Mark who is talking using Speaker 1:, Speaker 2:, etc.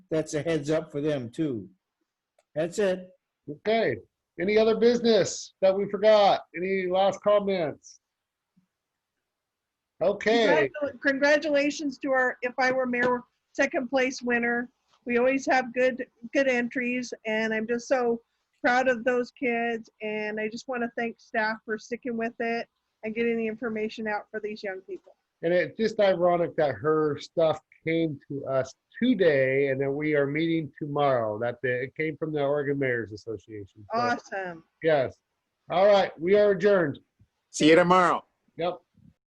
Speaker 1: that's a heads up for them too. That's it.
Speaker 2: Okay, any other business that we forgot? Any last comments? Okay,
Speaker 3: Congratu- Congratulations to our, if I were mayor, second place winner. We always have good, good entries and I'm just so proud of those kids. And I just want to thank staff for sticking with it and getting the information out for these young people.
Speaker 2: and it's just ironic that her stuff came to us today and that we are meeting tomorrow. That the- it came from the Oregon Mayors Association. So,
Speaker 3: Awesome.
Speaker 2: Yes. All right, we are adjourned.
Speaker 4: See you tomorrow.
Speaker 2: Yep.